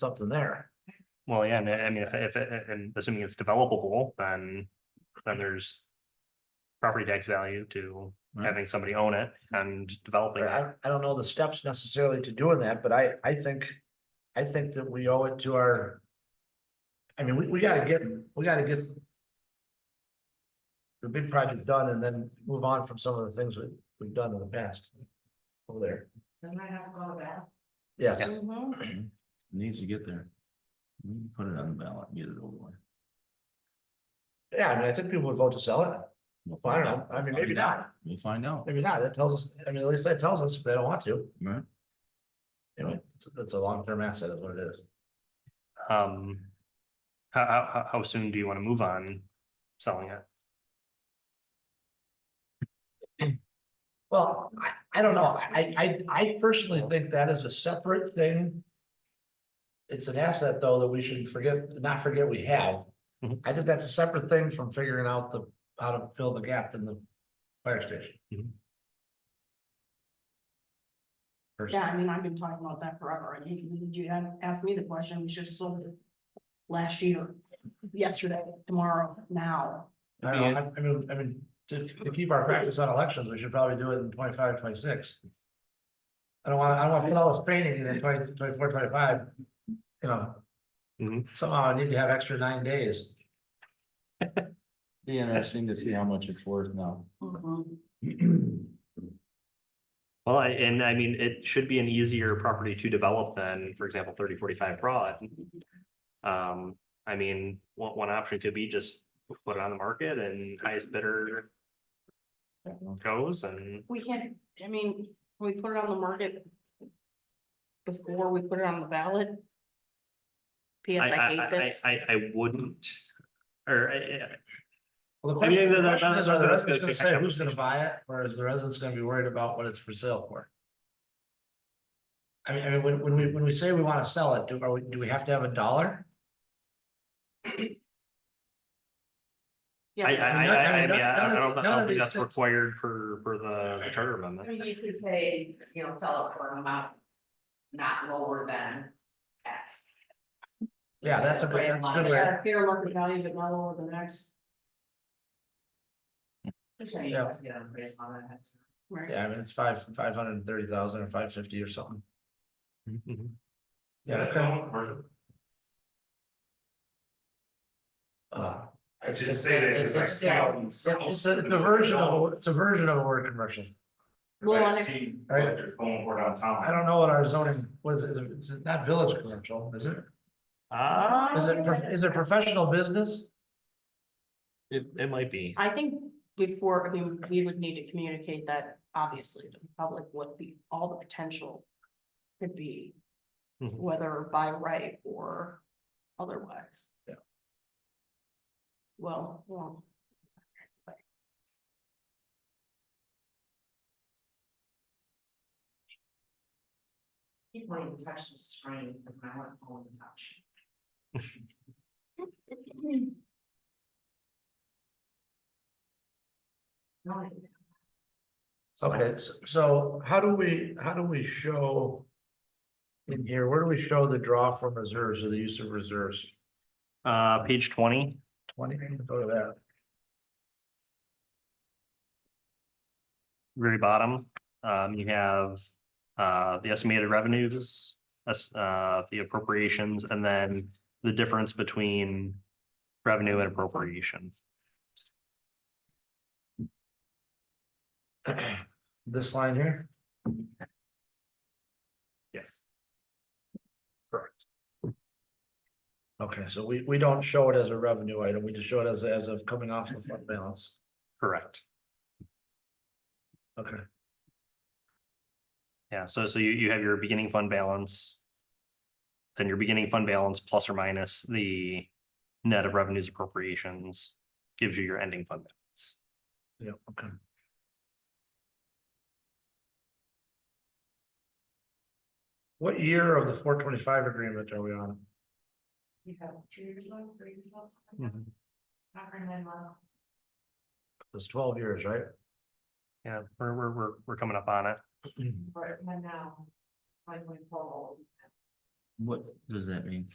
something there. Well, yeah, and I I mean, if, if, and assuming it's developable, then, then there's. Property tax value to Right. having somebody own it and developing it. I, I don't know the steps necessarily to doing that, but I, I think, I think that we owe it to our. I mean, we, we gotta get, we gotta get. The big project done and then move on from some of the things we, we've done in the past. Over there, Then I have all that. yes, Mhm. Needs to get there. We can Put it on the ballot, and get it over with. yeah, I mean, I think people would vote to sell it, We'll Well, I don't find know, out. I mean, We'll maybe find out. not, We'll find out, maybe not, that tells us, I mean, at least that tells us if they don't want to, right? you know, it's, it's a long-term asset is what it is. Um. How, how, how, how soon do you want to move on selling it? Well, I, I don't know, I, I, I personally think that is a separate thing. It's an asset, though, that we should forget, not forget we have. Mhm. I think that's a separate thing from figuring out the, how to fill the gap in the fire station. Mhm. First, Yeah, I mean, I've been talking about that forever, and you, you had asked me the question, we should have sold it last year, yesterday, tomorrow, now. I don't know, I, I mean, I mean, to, to keep our practice on elections, we should probably do it in 25, 26. I don't wanna, I don't wanna put all this training in in 20 24, 25. you know. Mhm. Somehow I need to have extra nine days. Be interesting to see how much it's worth now. Mm-hmm. Well, I, and I mean, it should be an easier property to develop than, for example, thirty forty-five broad. Um, I mean, one, one option could be just put it on the market and highest bidder goes and. We can't, I mean, we put it on the market before we put it on the ballot. PS, I, I I, hate I, this. I, I wouldn't, or I- I, Well, the I mean, question, the that- that- question is, that- are the that's residents gonna gonna be- say who's gonna buy it, or is the residents gonna be worried about what it's for sale for? I mean, I mean, when, when we, when we say we wanna sell it, do, are we, do we have to have a dollar? Yeah, I, I, I I, none- I, I I mean, mean, I- I none of don't, the- none I don't of think these that's things- required per, per the the charter amendment. mean, you could say, you know, sell it for an amount not lower than X. Yeah, that's a, good- that's a good way, got a fair market value, but not over the next, Yeah. Well, right? yeah, I mean, it's five, five hundred and thirty thousand or five fifty or something. Mhm. Yeah, okay. Uh, I It's- just say that. it's- because I it's- see how we sell It's a, it's a something version now, of, a- it's a version of a word commercial. because I Well, I- see what Alright. they're going for downtown. I don't know what our zoning, what is it, it's not village commercial, is it? Ah, Is it, pro- is it professional business? it, it might be. I think before, I mean, we would need to communicate that obviously to the public what the, all the potential could be. Mhm. Whether by right or otherwise. Yeah. Well, well, Keep wanting to touch the screen, but I want to hold and touch. No, Okay, s- so how do we, how do we show? In here, where do we show the draw from reserves or the use of reserves? Uh, page twenty, Twenty, go to that. very bottom, um, you have, uh, the estimated revenues, us- uh, the appropriations, and then the difference between revenue and appropriation. This line here, Yes. okay, so we, we don't show it as a revenue item, we just show it as, as of coming off of fund balance, Correct. okay. Yeah, so, so you, you have your beginning fund balance. Then your beginning fund balance plus or minus the net of revenues appropriations gives you your ending fund balance. Yeah, okay. What year of the four twenty-five agreement are we on? You have two years left, three years left. Mhm. Not very many left. It's twelve years, right? Yeah, we're, we're, we're, we're coming up on it. Right, and then now, like, we pull. What does that mean?